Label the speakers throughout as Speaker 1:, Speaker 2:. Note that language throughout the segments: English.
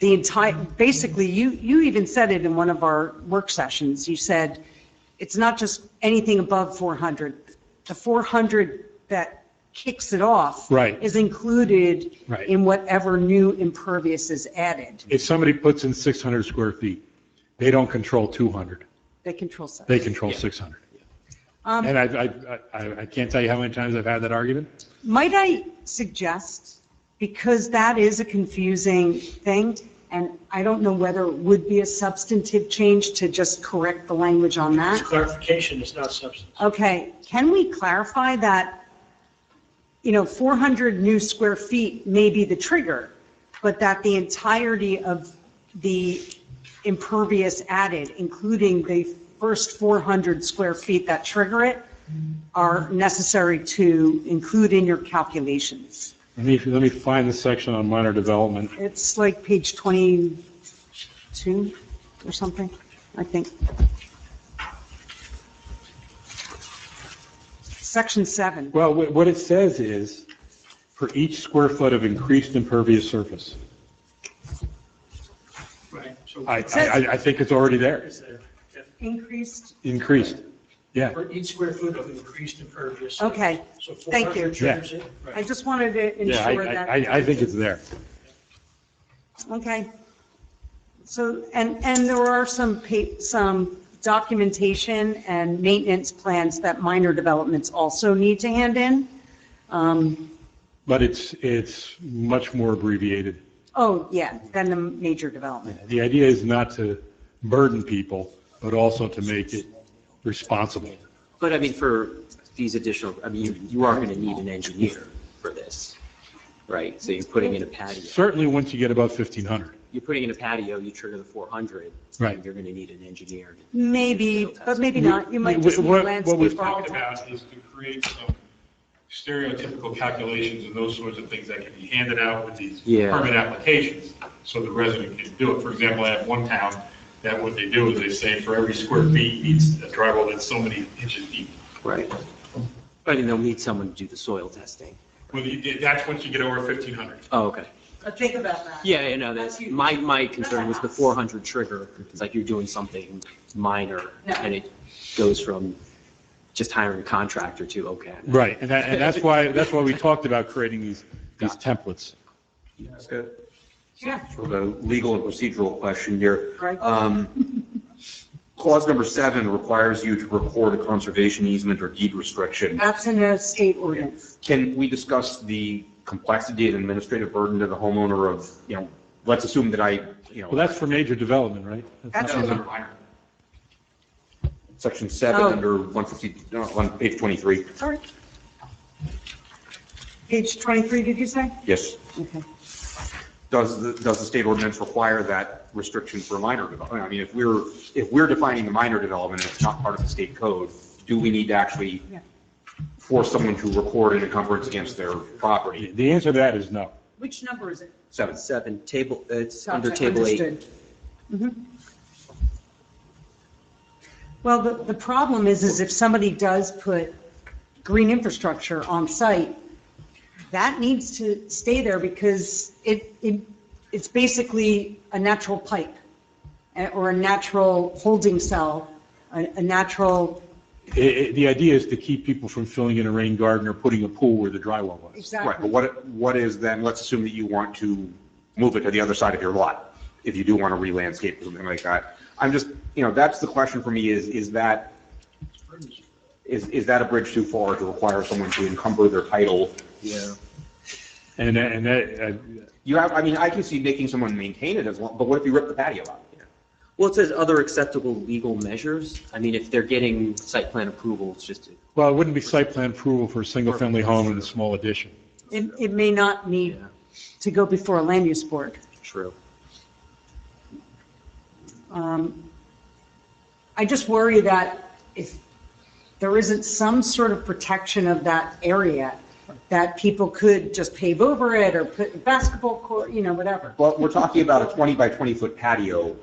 Speaker 1: the entire, basically, you, you even said it in one of our work sessions. You said, it's not just anything above 400. The 400 that kicks it off.
Speaker 2: Right.
Speaker 1: Is included.
Speaker 2: Right.
Speaker 1: In whatever new impervious is added.
Speaker 2: If somebody puts in 600 square feet, they don't control 200.
Speaker 1: They control site.
Speaker 2: They control 600.
Speaker 1: Um,
Speaker 2: And I, I- I, I can't tell you how many times I've had that argument.
Speaker 1: Might I suggest, because that is a confusing thing, and I don't know whether it would be a substantive change to just correct the language on that.
Speaker 3: Clarification is not substance.
Speaker 1: Okay, can we clarify that, you know, 400 new square feet may be the trigger, but that the entirety of the impervious added, including the first 400 square feet that trigger it, are necessary to include in your calculations?
Speaker 2: Let me, let me find the section on minor development.
Speaker 1: It's like page 22 or something, I think. Section 7.
Speaker 2: Well, wh- what it says is, for each square foot of increased impervious surface.
Speaker 3: Right. So
Speaker 2: I, I, I- I think it's already there,
Speaker 3: is there, yeah,
Speaker 1: Increased,
Speaker 2: increased. Yeah,
Speaker 3: for each square foot of increased impervious.
Speaker 1: okay.
Speaker 3: So
Speaker 1: Thank you.
Speaker 3: 400 triggers it,
Speaker 1: I
Speaker 3: right.
Speaker 1: just wanted to
Speaker 2: yeah, I,
Speaker 1: ensure
Speaker 2: I,
Speaker 1: that,
Speaker 2: I- I think it's there.
Speaker 1: okay. So, and, and there are some, pa- some documentation and maintenance plans that minor developments also need to hand in. Um,
Speaker 2: But it's, it's much more abbreviated.
Speaker 1: Oh, yeah, than the major development.
Speaker 2: The idea is not to burden people, but also to make it responsible.
Speaker 4: But I mean, for these additional, I mean, you, you are going to need an engineer for this, right? So you're putting in a patio.
Speaker 2: Certainly, once you get above 1,500.
Speaker 4: You're putting in a patio, you trigger the 400.
Speaker 2: Right.
Speaker 4: You're going to need an engineer.
Speaker 1: Maybe, but maybe not. You might
Speaker 2: We-
Speaker 1: just need
Speaker 2: what- what we've
Speaker 1: landscape
Speaker 5: talked
Speaker 1: architect.
Speaker 5: about is to create some stereotypical calculations and those sorts of things that can be handed out with these
Speaker 4: Yeah.
Speaker 5: permit applications, so the resident can do it. For example, I have one town that what they do is they say for every square feet needs a drywall that's so many inches deep.
Speaker 4: Right. But then they'll need someone to do the soil testing.
Speaker 5: Well, you- that's once you get over 1,500.
Speaker 4: Oh, okay.
Speaker 1: Think about that.
Speaker 4: Yeah, you know, that's, my, my concern was the 400 trigger. It's like you're doing something minor and it goes from just hiring a contractor to, okay.
Speaker 2: Right, and that, and that's why, that's why we talked about creating these, these templates.
Speaker 6: Sort
Speaker 1: Yeah,
Speaker 6: of a legal and procedural question here.
Speaker 1: Right.
Speaker 6: Um, Clause number seven requires you to record a conservation easement or deed restriction.
Speaker 1: that's in a state ordinance.
Speaker 6: Can we discuss the complexity and administrative burden to the homeowner of, you know, let's assume that I, you
Speaker 2: Well,
Speaker 6: know,
Speaker 2: that's for major development, right?
Speaker 1: That's in
Speaker 6: No, no,
Speaker 1: the-
Speaker 6: no, minor. section seven,
Speaker 1: Oh.
Speaker 6: under 150, no, on page 23,
Speaker 1: sorry. Page 23, did you say?
Speaker 6: yes.
Speaker 1: Okay.
Speaker 6: Does, the does the state ordinance require that restriction for minor development? I mean, if we're, if we're defining the minor development, and it's not part of the state code, do we need to actually
Speaker 1: Yeah.
Speaker 6: force someone to record an encumbrance against their
Speaker 2: The
Speaker 6: property?
Speaker 2: the answer to that is no.
Speaker 1: Which number is it?
Speaker 6: Seven.
Speaker 4: Seven, table, it's under table eight.
Speaker 1: Understood. Mhm. Well, the, the problem is, is if somebody does put green infrastructure on site, that needs to stay there because it, it, it's basically a natural pipe eh, or a natural holding cell, a, a natural,
Speaker 2: I- I- the idea is to keep people from filling in a rain garden or putting a pool where the drywall was.
Speaker 6: Right,
Speaker 1: exactly.
Speaker 6: but what, what is then, let's assume that you want to move it to the other side of your lot, if you do want to re-landscape or something like that. I'm just, you know, that's the question for me is, is that, is, is that a bridge too far to require someone to encumber their title?
Speaker 4: Yeah.
Speaker 2: And, and that, uh,
Speaker 6: You have, I mean, I can see making someone maintain it as long, but what if you rip the patio out?
Speaker 4: Well, it says other acceptable legal measures. I mean, if they're getting site plan approval, it's just,
Speaker 2: well, it wouldn't be site plan approval for a single-family home and a small addition.
Speaker 1: It, it may not need
Speaker 4: yeah,
Speaker 1: to go before a land use board.
Speaker 4: true.
Speaker 1: Um, I just worry that if there isn't some sort of protection of that area, that people could just pave over it or put a basketball court, you know, whatever.
Speaker 6: But we're talking about a 20 by 20 foot patio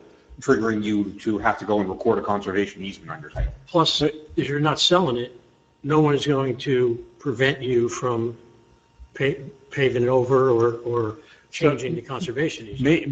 Speaker 6: triggering you to have to go and record a conservation easement on your title.
Speaker 3: Plus, uh, if you're not selling it, no one is going to prevent you from pa- paving it over or, or changing the conservation easement.
Speaker 2: May,